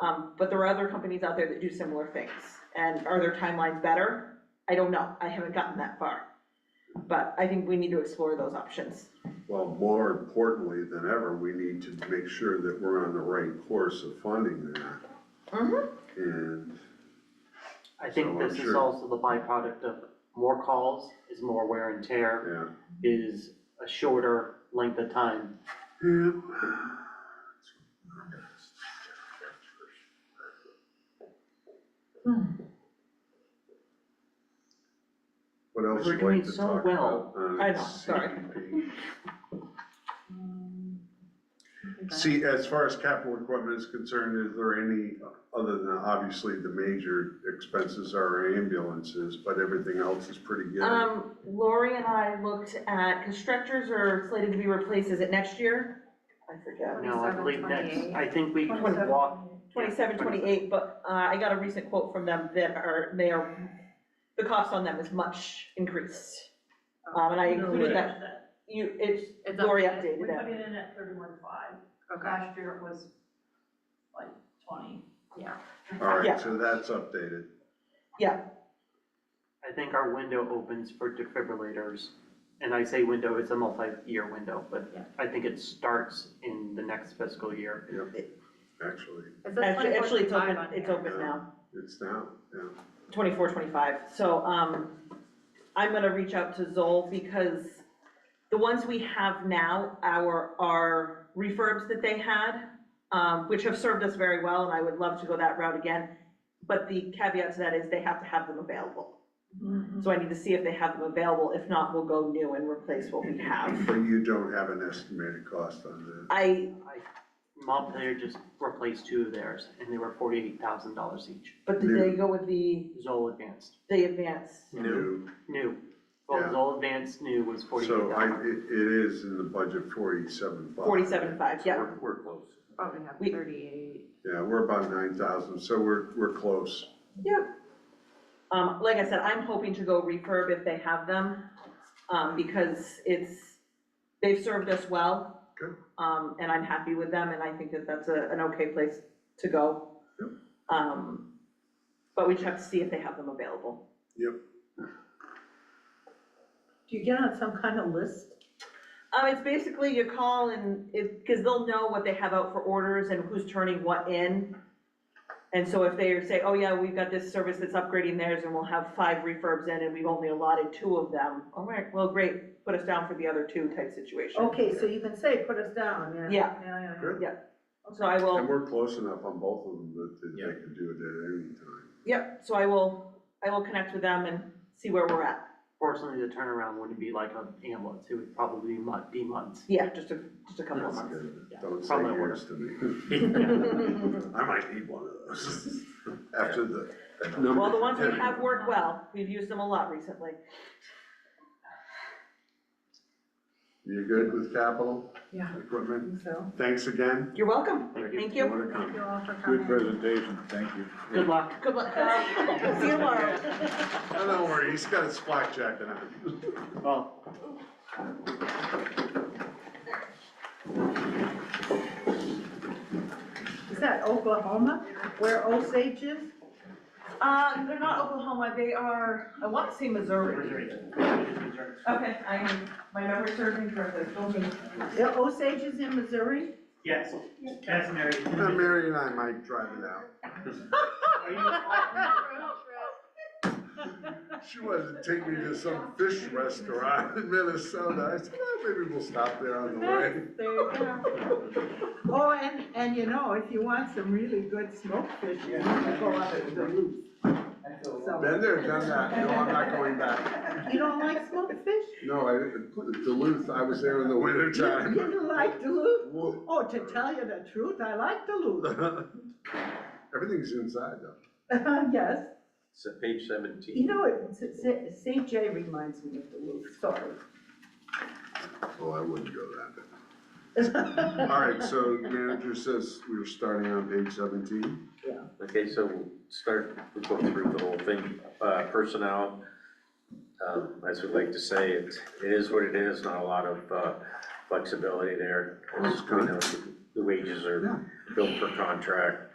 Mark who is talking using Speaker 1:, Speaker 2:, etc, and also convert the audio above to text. Speaker 1: Um, but there are other companies out there that do similar things, and are their timelines better? I don't know, I haven't gotten that far. But I think we need to explore those options.
Speaker 2: Well, more importantly than ever, we need to make sure that we're on the right course of funding that.
Speaker 1: Mhm.
Speaker 2: And,
Speaker 3: I
Speaker 2: So
Speaker 3: think
Speaker 2: I'm
Speaker 3: this is
Speaker 2: sure-
Speaker 3: also the byproduct of more calls is more wear and tear,
Speaker 2: yeah,
Speaker 3: is a shorter length of time.
Speaker 2: yeah. What else
Speaker 3: We're
Speaker 2: would you
Speaker 3: doing
Speaker 2: like to
Speaker 3: so
Speaker 2: talk
Speaker 3: well.
Speaker 2: about? on
Speaker 1: I know, sorry.
Speaker 2: CPP? See, as far as capital equipment is concerned, is there any, other than obviously the major expenses are our ambulances, but everything else is pretty good?
Speaker 1: Um, Lori and I looked at, cause stretchers are slated to be replaced, is it next year? I forget.
Speaker 3: No, I
Speaker 4: 27,
Speaker 3: believe next,
Speaker 4: 28.
Speaker 3: I think we can
Speaker 4: 27,
Speaker 3: walk,
Speaker 1: Twenty-seven, twenty-eight, but, uh, I got a recent quote from them that are, they are, the cost on them is much increased. Um, and I included that, you, it's,
Speaker 4: It's up.
Speaker 1: Lori
Speaker 5: We
Speaker 1: updated
Speaker 5: put
Speaker 1: that.
Speaker 5: it in at thirty-one five,
Speaker 4: Okay,
Speaker 5: last year it was like twenty.
Speaker 2: All
Speaker 1: yeah.
Speaker 2: right, so that's updated.
Speaker 3: I think our window opens for defibrillators. And I say window, it's a multi-year window, but
Speaker 4: Yeah.
Speaker 3: I think it starts in the next fiscal year.
Speaker 2: Actually,
Speaker 4: it says
Speaker 1: Actually, actually, it's
Speaker 4: 24.5
Speaker 1: open,
Speaker 4: on
Speaker 1: it's
Speaker 4: here.
Speaker 1: open now.
Speaker 2: it's down, yeah.
Speaker 1: 24, 25. So, um, I'm gonna reach out to Zoll because the ones we have now, our, our refurbs that they had, um, which have served us very well, and I would love to go that route again. But the caveat to that is they have to have them available. So I need to see if they have them available. If not, we'll go new and replace what we have.
Speaker 2: But you don't have an estimated cost on that.
Speaker 1: I,
Speaker 3: Montpelier just replaced two of theirs and they were forty-eight thousand dollars each.
Speaker 1: but did they go with the,
Speaker 3: Zoll Advanced,
Speaker 1: the advanced?
Speaker 2: New,
Speaker 3: new. Well,
Speaker 2: Yeah.
Speaker 3: Zoll Advanced new was forty-eight
Speaker 2: so I,
Speaker 3: thousand.
Speaker 2: it, it is in the budget forty-seven five.
Speaker 1: 47.5, yeah.
Speaker 2: We're, we're close.
Speaker 4: Oh, we have
Speaker 1: We-
Speaker 4: thirty-eight.
Speaker 2: Yeah, we're about nine thousand, so we're, we're close.
Speaker 1: Um, like I said, I'm hoping to go refurb if they have them, um, because it's, they've served us well.
Speaker 2: Good.
Speaker 1: Um, and I'm happy with them, and I think that that's a, an okay place to go.
Speaker 2: Yep.
Speaker 1: Um, but we just have to see if they have them available.
Speaker 6: Do you get on some kind of list?
Speaker 1: Um, it's basically you call and it, because they'll know what they have out for orders and who's turning what in. And so if they say, oh yeah, we've got this service that's upgrading theirs and we'll have five refurbs in and we've only allotted two of them, all right, well, great, put us down for the other two type situation.
Speaker 6: Okay, so you can say, put us down, yeah.
Speaker 1: Yeah.
Speaker 6: Yeah, yeah, yeah.
Speaker 2: Good.
Speaker 1: So I
Speaker 2: And
Speaker 1: will,
Speaker 2: we're close enough on both of them that that they can do it at any time.
Speaker 1: yep, so I will, I will connect with them and see where we're at.
Speaker 3: Fortunately, the turnaround wouldn't be like an ambulance, it would probably be mon- be months.
Speaker 1: Yeah, just a, just a couple of
Speaker 2: That's
Speaker 1: months.
Speaker 2: good.
Speaker 3: Yeah.
Speaker 2: Don't say
Speaker 3: Probably
Speaker 2: yours to me. I might need one of those after the.
Speaker 1: Well, the ones we have worked well, we've used them a lot recently.
Speaker 2: You good with capital?
Speaker 6: Yeah. I
Speaker 2: Equipment?
Speaker 6: think so.
Speaker 2: Thanks again.
Speaker 1: You're welcome,
Speaker 3: Thank you.
Speaker 1: thank you.
Speaker 2: wanna come?
Speaker 6: Thank you all for coming.
Speaker 7: Good presentation, thank you.
Speaker 3: Good luck.
Speaker 1: Good luck, Carl. See you tomorrow.
Speaker 2: Oh, don't worry, he's got his flak jacket on.
Speaker 3: Well,
Speaker 6: Is that Oklahoma, where Osage is?
Speaker 1: Uh, they're not Oklahoma, they are, I want to say Missouri. Okay, I, my memory serves me correctly, don't me.
Speaker 6: Yeah, Osage is in Missouri?
Speaker 8: Yes, that's Mary.
Speaker 2: Now, Mary and I might drive it out. She wanted to take me to some fish restaurant in Minnesota. I said, "Well, maybe we'll stop there on the way.
Speaker 6: There you go. Oh, and, and you know, if you want some really good smoked fish, you have to go up to the roof. So,
Speaker 2: Been there, done that. No, I'm not going back.
Speaker 6: you don't like smoked fish?
Speaker 2: No, I, Duluth, I was there in the winter
Speaker 6: You
Speaker 2: time.
Speaker 6: didn't like Duluth? Oh, to tell you the truth, I like Duluth.
Speaker 2: Everything's inside though.
Speaker 6: Yes,
Speaker 7: So page seventeen.
Speaker 6: you know, it- S- S- St. J reminds me of Duluth, sorry.
Speaker 2: Oh, I wouldn't go that. bad. All right, so manager says we were starting on page seventeen.
Speaker 7: Okay, so we'll start, we'll go through the whole thing, uh, personnel. Um, as we like to say, it, it is what it is, not a lot of, uh, flexibility there. As we know, The wages are built per contract.